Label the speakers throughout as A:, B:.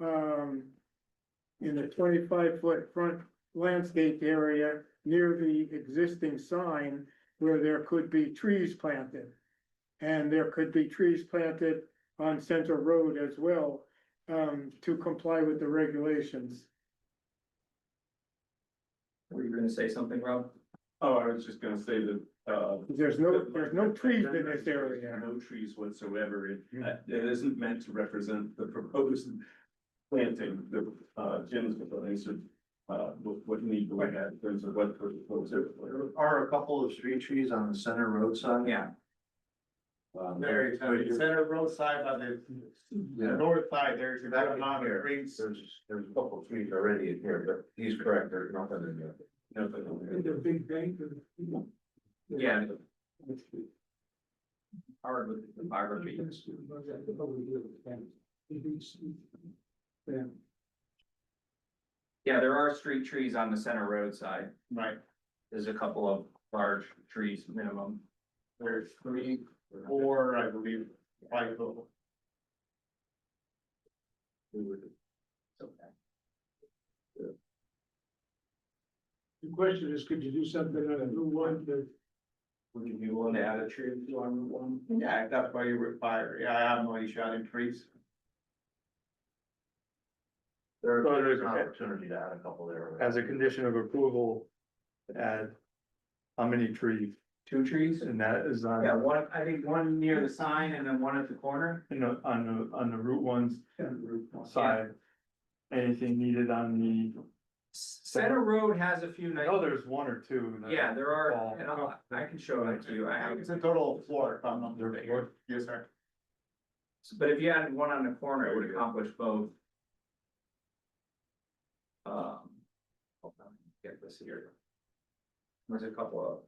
A: um, in the twenty-five foot front landscaped area near the existing sign where there could be trees planted. And there could be trees planted on Center Road as well, um, to comply with the regulations.
B: Were you gonna say something, Rob?
C: Oh, I was just gonna say that, uh.
A: There's no,
C: that-
A: there's no trees in
C: there's
A: this area. Hmm.
C: No trees whatsoever, it, uh, it isn't meant to represent the proposed planting, the, uh, Jim's proposed, uh, what, what need we have in terms of what proposed.
D: There are a couple of street trees on the center roadside.
B: Yeah.
D: Um,
E: Very tiny, center roadside by the
D: Yeah.
E: north side, there's a
D: Back
E: lot
D: in
E: of
D: here.
E: trees.
D: There's, there's a couple of trees already in here, but he's correct, there's nothing in there.
C: Nothing.
A: big bank.
B: Yeah. Hard with the topography. Yeah, there are street trees on the center roadside.
E: Right.
B: There's a couple of large trees minimum.
E: There's three, four, I believe, five total.
A: The question is, could you do something on a new one that?
B: Would you be willing to add a tree if you want one?
E: Yeah, if that's why you require, yeah, I have no issue adding trees.
D: There-
F: Well, there's-
D: There's an opportunity to add a couple there.
F: as a condition of approval, add how many trees,
B: Two trees?
F: and that is on,
B: Yeah, one, I think one near the sign and then one at the corner.
F: you know, on the, on the Route One's side. Anything needed on the,
B: Center Road has a few nice.
F: I know there's one or two. that-
B: Yeah, there are,
F: Fall.
B: and I'll- I can show that to you. I have.
E: It's a total of four, if I'm not
F: They're
E: mistaken.
F: four?
E: Yes, sir.
B: But if you added one on the corner, it would accomplish both. Um. hold on, Get this here. There's a couple of.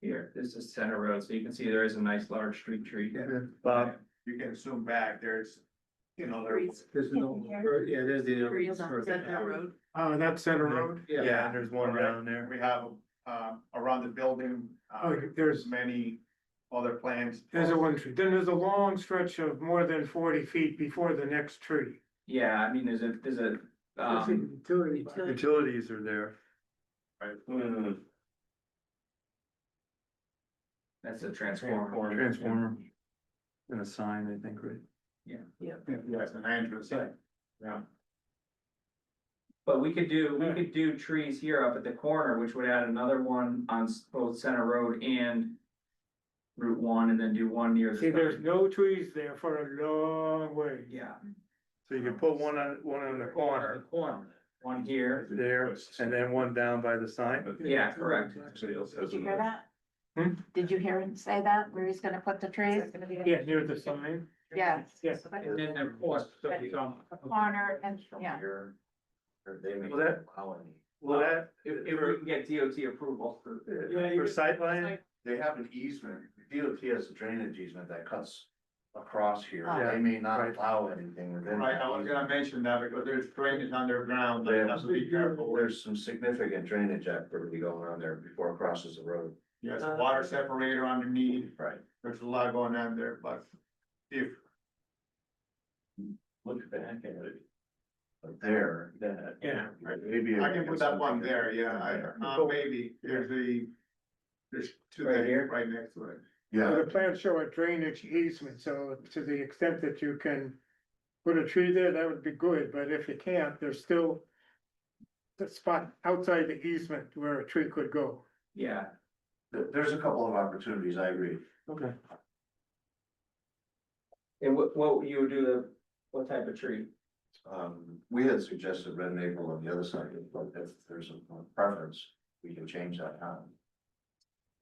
B: Here, this is Center Road, so you can see there is a nice large street tree.
D: Uh,
F: Bob,
E: You can zoom back, there's, you know, there.
G: Trees.
D: There's
G: no-
D: yeah, there's
G: Trees on Center Road.
A: Oh, that's Center Road?
F: yeah, there's one
E: Correct.
F: around there.
E: We have, um, around the building. uh,
A: Oh, there's-
E: Many other plans.
A: There's a one tree. Then there's a long stretch of more than forty feet before the next tree.
B: Yeah, I mean, there's a, there's a, um,
G: Utility.
F: Utilities are there,
C: Mm,
B: that's a transformer.
F: transformer. And a sign, I think, right?
E: Yes, an entrance, yeah.
B: But we could do, we could do trees here up at the corner, which would add another one on s- both Center Road and. Route one and then do one near. the
A: See, there's
B: sign.
A: no trees there for a long way.
B: Yeah.
F: So you could put one on, one on the corner
B: Corner. One here,
F: there, and then one down by the sign.
B: yeah, correct.
C: Somebody else has
G: Did you
C: another.
G: hear that?
A: Hmm?
G: Did you hear him say that, where he's gonna put the trees?
A: Yeah, near the sign.
G: Yes.
A: Yeah.
B: And then of course.
G: A corner and, yeah,
F: Well, that- Well, that,
B: If, if we can get DOT approval for.
A: Yeah, you-
F: for sightline,
D: They have an easement, DOT has a drainage easement that cuts across here,
G: Oh.
D: they may not
F: Right.
D: allow anything within.
E: Right,
D: that
E: I was gonna
D: easement.
E: mention that because there's drainage underground, they have to be careful with,
D: There's some significant drainage activity going on there before it crosses the road.
E: yes, water separator underneath,
D: Right.
E: there's a lot going on there, but. If,
C: Look back at it,
D: But there,
C: that.
A: Yeah.
D: maybe.
E: I can put that one there, yeah, I, uh, maybe, there's the. There's two
B: Right
E: there,
B: here?
E: right next to it,
D: Yeah,
A: The plans show a drainage easement, so to the extent that you can put a tree there, that would be good, but if you can't, there's still the spot outside the easement where a tree could go.
B: Yeah,
D: there- there's a couple of opportunities, I agree.
F: okay.
B: and what, what you would do the, what type of tree?
D: Um, we had suggested red maple on the other side, but if there's a preference, we can change that time.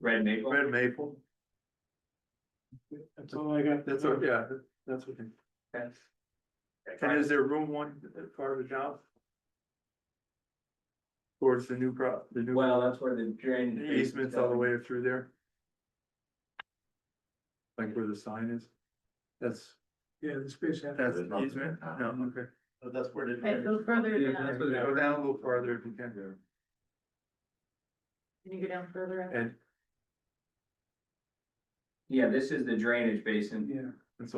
B: Red maple?
F: Red maple,
A: That's all I got.
F: that's, what- yeah, that's what.
B: That's-
F: And is there room one at part of the job? Towards the new pro, the new
B: Well, that's where the drain.
F: easements all the way through there? Like where the sign is? That's,
A: Yeah, the space.
F: that's
D: There's nothing.
F: easement? No, okay.
E: but that's where the.
G: Right, go further
B: Yeah,
G: down,
B: that's
G: can
B: what-
F: Go down a little farther if you can there.
G: you go down further?
F: And
B: Yeah, this is the drainage basin.
A: Yeah.